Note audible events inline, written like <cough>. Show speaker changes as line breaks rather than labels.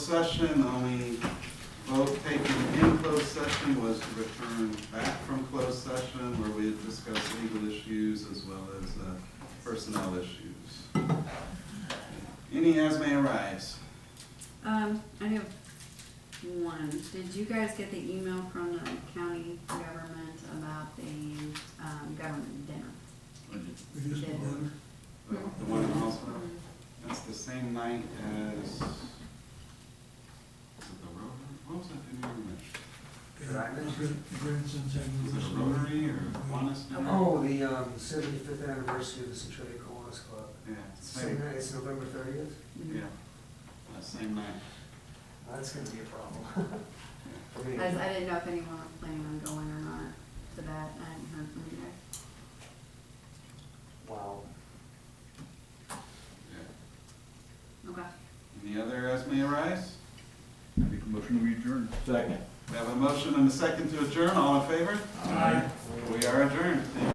session, only vote taken in closed session was to return back from closed session where we had discussed legal issues as well as uh, personnel issues. Any as may arise.
Um, I have one. Did you guys get the email from the county government about the, um, government dinner? Did-
The the one in Hallsville, that's the same night as, is it the Rotary? What was that dinner you mentioned?
Did I mention
Brinson's having
Was
this
it a
one.
Rotary or Kiwanis dinner?
Oh, the um, 75th anniversary of the Centralia Kiwanis Club.
Yeah,
Same
same,
night, it's November 30th?
Mm-hmm.
yeah, Uh, same night.
That's gonna be a problem. <laughs> For me.
I, was- I didn't know if anyone was planning on going or not to that. I hadn't heard from you guys.
Wow.
Yeah.
Okay.
Any other as may arise?
Make a motion, we adjourn. Second.
We have a motion and a second to adjourn, all in favor?
Aye.
We are adjourned, thank you.